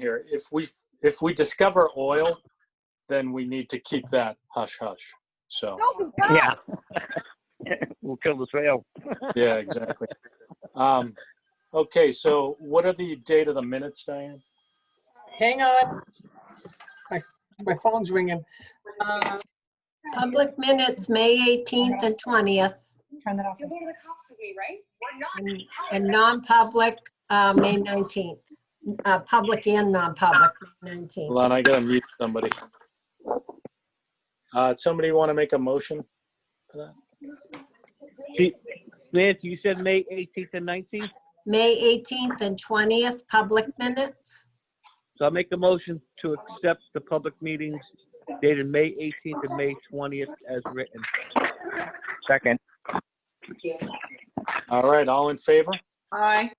here. If we, if we discover oil, then we need to keep that hush hush. So, Don't be Yeah. We'll kill the sale. yeah, exactly. Um, okay, so what are the date of the minutes, Diane? Hang on. My, my phone's ringing. Uh, Um, Public minutes, May 18th and 20th, Turn that off. You'll go to the cops with me, right? We're not. and- and non-public, uh, May 19th. Uh, Public and non-public, May 19th. Hold on, I gotta mute somebody. Uh, somebody want to make a motion? Lance, you said May 18th and 19th, May 18th and 20th, public minutes. so I'll make a motion to accept the public meetings dated May 18th and May 20th as written. Second. All right, all in favor? Aye.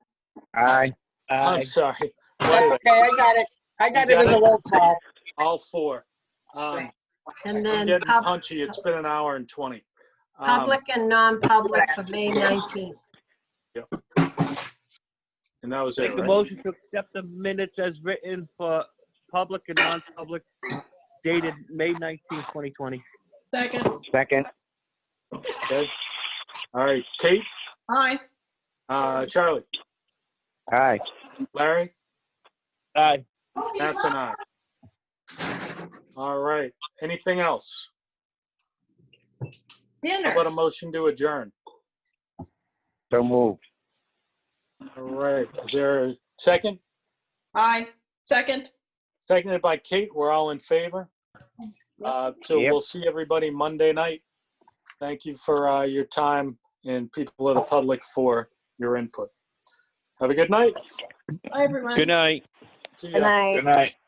Aye. I'm Aye. sorry. That's okay, I got it. I got it as a roll call. All four. Um, And I'm then getting pub- punchy. It's been an hour and 20. Um, public and non-public for May 19th. And that was it, Make the right? motion to accept the minutes as written for public and non-public dated May 19th, 2020. Second. Second. Okay. All right, Kate, Aye. uh, Charlie, Aye. Larry, Aye. that's an aye. All right, anything else? How Dinner. about a motion to adjourn? So moved. All right, is there a second? Aye. Second. Seconded by Kate, we're all in favor. Uh, So Yep. we'll see everybody Monday night. Thank you for uh, your time and people of the public for your input. Have a good night. Hi, everyone. night. See Good ya. night. night.